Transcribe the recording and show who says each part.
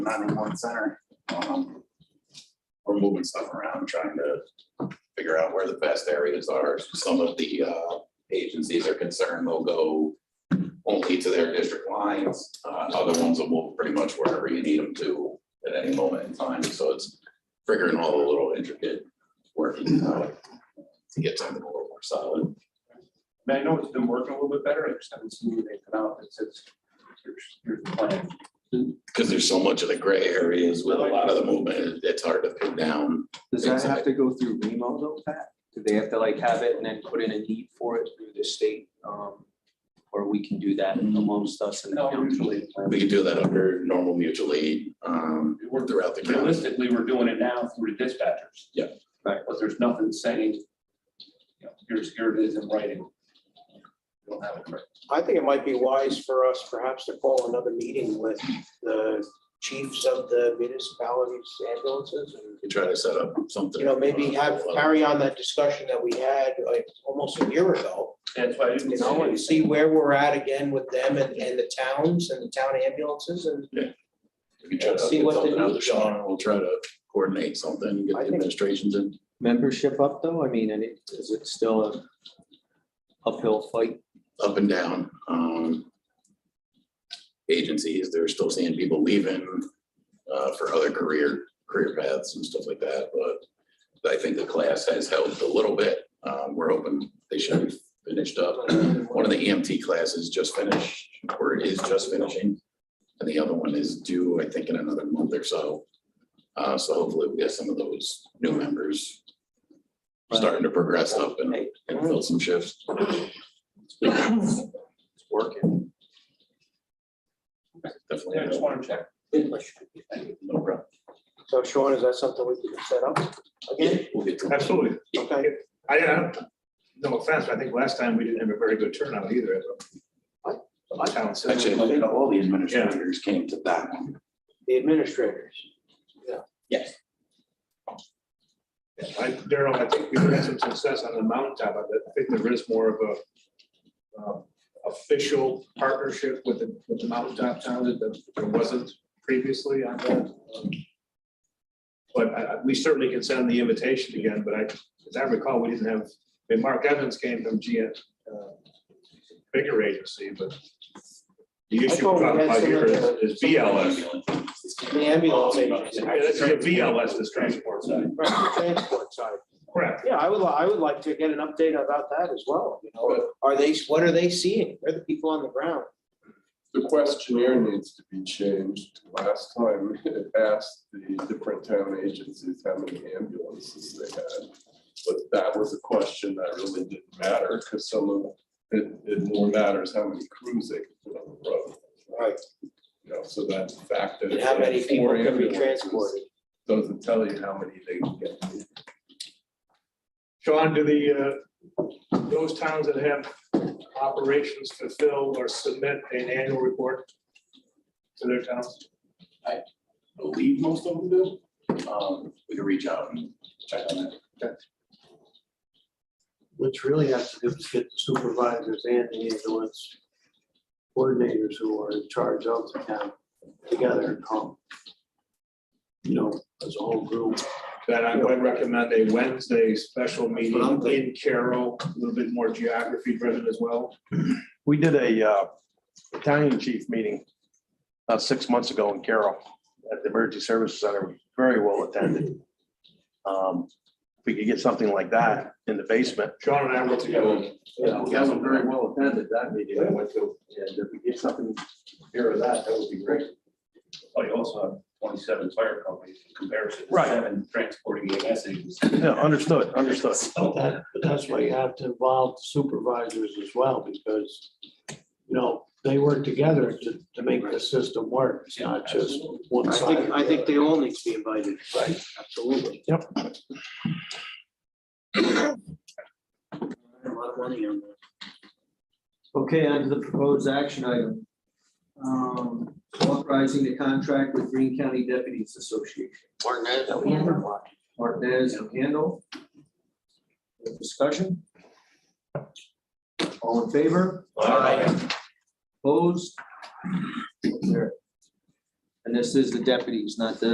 Speaker 1: 911 center. Um, We're moving stuff around, trying to figure out where the best areas are. Some of the uh, agencies are concerned they'll go only to their district lines. Uh, Other ones will move pretty much wherever you need them to at any moment in time. So it's figuring all the little intricate working out to get something a little more solid.
Speaker 2: I mean, I know it's been working a little bit better, I just haven't seen anything come out that says, here's, here's the plan.
Speaker 1: Because there's so much of the gray areas with a lot of the movement, it's hard to pin down.
Speaker 3: Does that have to go through Remo though, Pat? Do they have to like have it and then put in a need for it through the state? um, Or we can do that amongst us and the
Speaker 2: No,
Speaker 3: county?
Speaker 2: usually.
Speaker 1: We could do that under normal mutual aid, um, or throughout the county.
Speaker 2: Realistically, we're doing it now through the dispatchers.
Speaker 1: Yeah.
Speaker 2: Right, but there's nothing saying, you know, here's, here it is in writing. We Don't have it right.
Speaker 4: I think it might be wise for us perhaps to call another meeting with the chiefs of the municipalities ambulances. and,
Speaker 1: We try to set up something.
Speaker 4: You know, maybe have, carry on that discussion that we had like almost a year ago.
Speaker 2: That's why I didn't
Speaker 4: You know, and
Speaker 2: see
Speaker 4: see where we're at again with them and, and the towns and the town ambulances and
Speaker 1: We try to
Speaker 4: See
Speaker 1: get
Speaker 4: what the
Speaker 1: something out of the
Speaker 4: needs are.
Speaker 1: Sean, we'll try to coordinate something, get
Speaker 4: I
Speaker 1: the
Speaker 4: think-
Speaker 1: administrations in.
Speaker 3: Membership up though? I mean, and it, is it still a uphill fight?
Speaker 1: up and down. um, Agencies, they're still seeing people leaving uh, for other career, career paths and stuff like that, but I think the class has helped a little bit. Um, We're hoping they should be finished up. One of the EMT classes just finished, or is just finishing, and the other one is due, I think, in another month or so. Uh, So hopefully we get some of those new members starting to progress up and and fill some shifts. It's working. Definitely.
Speaker 2: I just want to check.
Speaker 1: No problem.
Speaker 4: so Sean, is that something we can set up again?
Speaker 1: We'll get to-
Speaker 5: Absolutely.
Speaker 4: Okay,
Speaker 5: I, I don't, no offense, but I think last time we didn't have a very good turnout either. as a- a town center.
Speaker 1: Actually, I think all the administrators came to that one.
Speaker 4: the administrators.
Speaker 5: I, Daryl, I think we've had some success on the mountaintop. I think there is more of a um, official partnership with the, with the mountaintop town that there wasn't previously on that. Um, But I, I- we certainly can send the invitation again, but I, as I recall, we didn't have, I mean, Mark Evans came from G, uh, bigger agency, but the issue
Speaker 4: thought we had
Speaker 5: about here is
Speaker 4: someone-
Speaker 5: is BLS.
Speaker 4: The ambulance agency.
Speaker 5: Yeah, that's your BLS, this transport side.
Speaker 4: Right, the Transport side.
Speaker 5: Correct.
Speaker 4: Yeah, I would, li- I would like to get an update about that as well, you know, are they, what are they seeing? Where are the people on the ground?
Speaker 6: The questionnaire needs to be changed. Last time it asked the different town agencies how many ambulances they had. But that was a question that really didn't matter because some of it, it more matters how many crews they could put on the road.
Speaker 4: Right.
Speaker 6: You know, so that fact that.
Speaker 4: And how many people
Speaker 6: four
Speaker 4: can be
Speaker 6: ambulances
Speaker 4: transported?
Speaker 6: Doesn't tell you how many they can get.
Speaker 5: Sean, do the, uh, those towns that have operations fulfill or submit an annual report to their towns?
Speaker 1: Believe most of them do. Um, We can reach out and check on that.
Speaker 7: What's really have to do is get the supervisors and the ambulance coordinators who are in charge of the town together and come. You know, as a whole group.
Speaker 5: Then I would recommend a Wednesday special
Speaker 4: That's what I'm
Speaker 5: meeting
Speaker 4: thinking.
Speaker 5: in Carroll, a little bit more geography driven as well.
Speaker 8: We did a uh, battalion chief meeting about six months ago in Carroll at the Emergency Services Center, very well attended. Um, If we could get something like that in the basement.
Speaker 5: Sean and I worked together.
Speaker 8: Yeah, that was very well attended, that meeting I went to, and if we get something here or that, that would be great.
Speaker 2: Oh, you also have twenty-seven fire companies in comparison to
Speaker 8: Right.
Speaker 2: seven transporting E EMS agencies.
Speaker 8: Yeah, understood, understood.
Speaker 7: But that, but that's why you have to involve the supervisors as well, because, you know, they work together to, to make the system work. It's not just one
Speaker 4: I
Speaker 7: side.
Speaker 4: think, I think they all need to be invited. Right. Absolutely.
Speaker 8: Yep.
Speaker 4: A lot of money on that.
Speaker 3: Okay, on to the proposed action item. Um, Authorizing the contract with Green County Deputies Association. Martinez and Handle. Discussion? All in favor? Opposed? There. And this is the deputies, not the